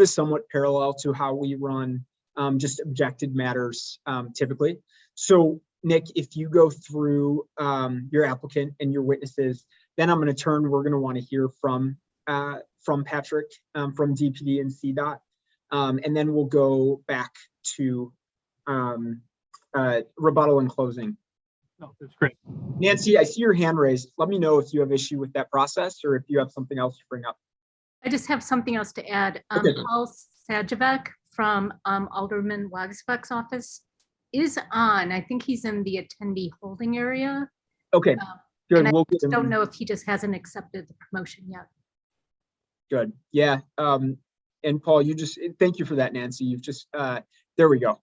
is somewhat parallel to how we run um, just objected matters um, typically. So, Nick, if you go through um, your applicant and your witnesses, then I'm going to turn. We're going to want to hear from uh, from Patrick um, from DPD and CDOT, um, and then we'll go back to um, uh, rebuttal and closing. No, Oh, that's great. Nancy, I see your hand raised. Let me know if you have issue with that process or if you have something else to bring up. I just have something else to add. Um, Okay. Paul Sajavec from um, Alderman Wagsbuck's office is on. I think he's in the attendee holding area. Okay. good. Um, and I we'll get him- Don't know if he just hasn't accepted the promotion yet. Good. Yeah. Um, and Paul, you just, eh, thank you for that, Nancy. You've just, uh, there we go.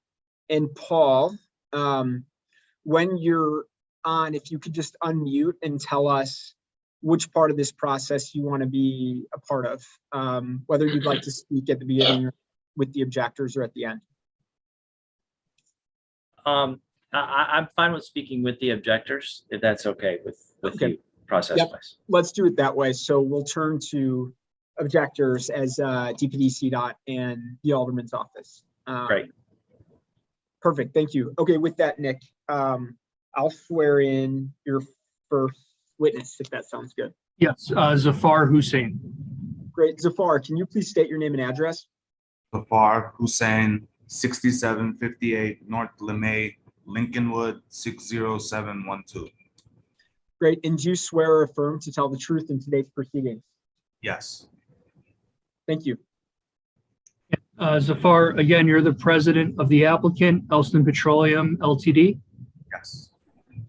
And Paul, um, when you're on, if you could just unmute and tell us which part of this process you want to be a part of, um, whether you'd like to speak at the beginning or with the objectors or at the end. Um, I, I, I'm fine with speaking with the objectors, if that's okay with, with Okay. you process Yep. wise. Let's do it that way. So we'll turn to objectors as, uh, DPD dot and the Alderman's office. Um, Great. Perfect, thank you. Okay, with that, Nick, um, I'll swear in your first witness, if that sounds good. Yes, uh, Zafar Hussein. Great, Zafar, can you please state your name and address? Zafar Hussein, sixty-seven fifty-eight North Lemay, Lincolnwood, six zero seven one two. Great, and do you swear or affirm to tell the truth in today's proceedings? Yes, Thank you. Uh, Zafar, again, you're the president of the applicant, Elston Petroleum LTD, yes,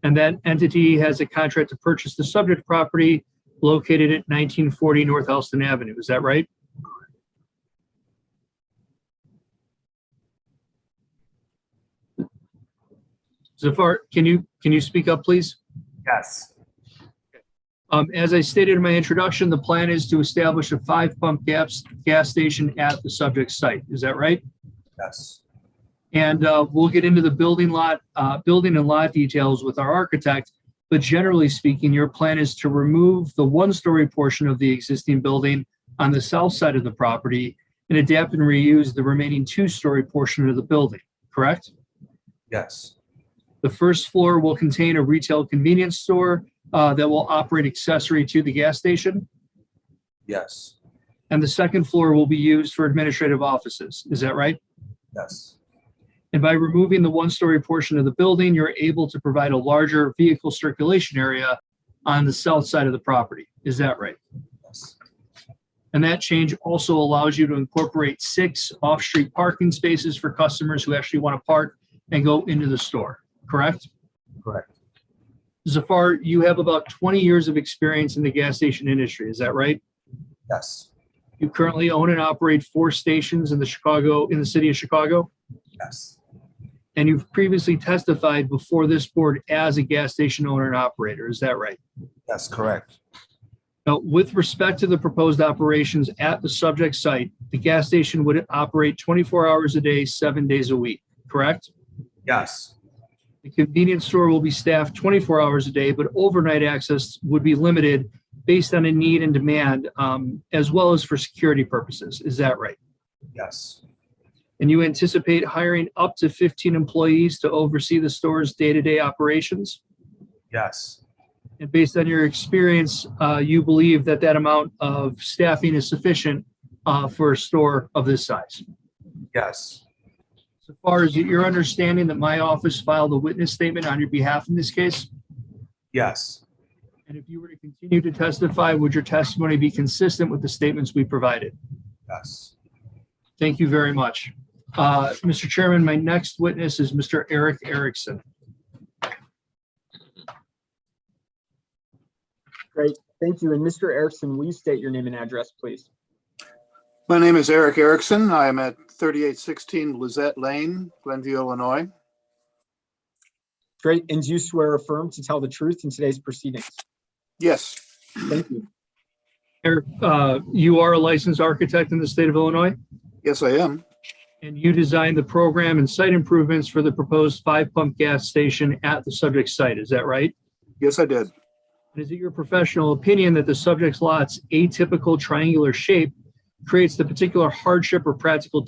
and that entity has a contract to purchase the subject property located at 1940 North Elston Avenue. Is that right? Zafar, can you, can you speak up, please? yes, Um, as I stated in my introduction, the plan is to establish a five pump gas, gas station at the subject site. Is that right? yes, And, uh, we'll get into the building lot, uh, building and lot details with our architect. But generally speaking, your plan is to remove the one-story portion of the existing building on the south side of the property and adapt and reuse the remaining two-story portion of the building, correct? yes, The first floor will contain a retail convenience store, uh, that will operate accessory to the gas station. yes, And the second floor will be used for administrative offices. Is that right? yes, And by removing the one-story portion of the building, you're able to provide a larger vehicle circulation area on the south side of the property. Is that right? yes, And that change also allows you to incorporate six off-street parking spaces for customers who actually want to park and go into the store, correct? Correct. Zafar, you have about 20 years of experience in the gas station industry. Is that right? yes, You currently own and operate four stations in the Chicago, in the city of Chicago, yes, and you've previously testified before this board as a gas station owner and operator. Is that right? yes, correct, Now, with respect to the proposed operations at the subject site, the gas station would operate 24 hours a day, seven days a week, correct? yes, The convenience store will be staffed 24 hours a day, but overnight access would be limited based on a need and demand, um, as well as for security purposes. Is that right? yes, And you anticipate hiring up to 15 employees to oversee the store's day-to-day operations? yes, And based on your experience, uh, you believe that that amount of staffing is sufficient uh, for a store of this size? yes, So far as your understanding that my office filed a witness statement on your behalf in this case? yes, And if you were to continue to testify, would your testimony be consistent with the statements we provided? yes, Thank you very much. Uh, Mr. Chairman, my next witness is Mr. Eric Erickson. Thank you. And Mr. Erickson, will you state your name and address, please? My name is Eric Erickson. I am at 3816 Lizette Lane, Glenview, Illinois. Great, and do you swear or affirm to tell the truth in today's proceedings? Yes, Thank you. Eric, uh, you are a licensed architect in the state of Illinois, yes, I am. and you designed the program and site improvements for the proposed five-pump gas station at the subject site, is that right? Yes, I did. And Is it your professional opinion that the subject lot's atypical triangular shape creates the particular hardship or practical